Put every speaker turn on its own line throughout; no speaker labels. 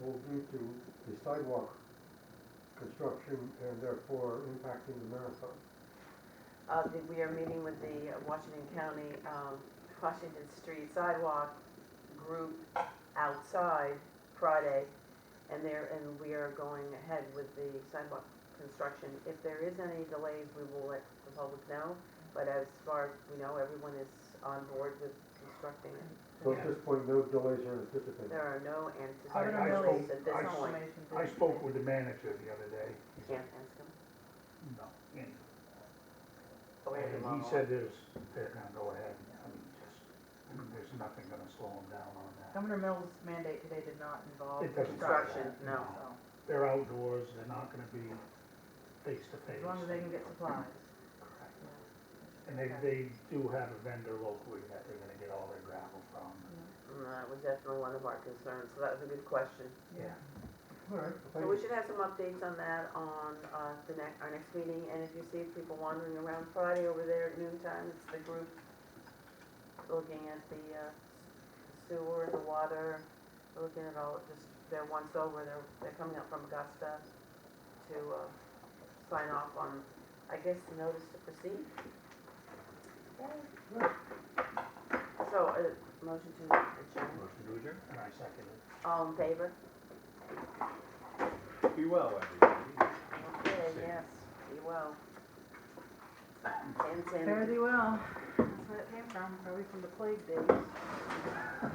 will lead to the sidewalk construction and therefore impacting the marathon.
Uh, the- we are meeting with the Washington County, um, Washington Street Sidewalk Group outside Friday. And there, and we are going ahead with the sidewalk construction. If there is any delays, we will let the public know. But as far as we know, everyone is on board with constructing it.
So at this point, no delays are anticipated.
There are no
I
anticipated
don't
delays
know,
at this
I
point.
I spoke with the manager the other day.
Can't ask them.
No, and,
Oh, wait a
and
moment.
he said there's, they're gonna go ahead, I mean, just, I mean, there's nothing gonna slow them down on that.
Governor Mills' mandate today did not involve
It doesn't stop
construction,
Construction,
that,
no.
so,
They're outdoors, they're not gonna be face to face.
as long as they can get supplies.
Correct. And they, they do have a vendor locally that they're gonna get all their gravel from,
Mm, That was definitely one of our concerns, so that was a good question.
yeah.
All right,
So
thank
we
you.
should have some updates on that on uh, the next, our next meeting, and if you see people wandering around Friday over there at noon time, it's the group looking at the uh, sewer, the water, looking at all, just, they're once over, they're, they're coming up from Augusta to uh, sign off on, I guess, the notice to proceed. So, uh, motion to adjourn,
Motion to adjourn? And I second it.
all in favor?
Be well, everybody.
Okay, yes, be well. And Sandy.
Fare thee well. That's where it came from, probably from the plague days.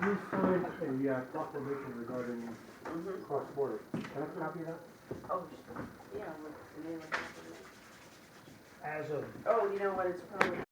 You signed a uh, proclamation regarding
Mhm.
cross-border. Can I have a copy of that?
Oh, sh- yeah, with the name of the company.
As of
Oh, you know what, it's probably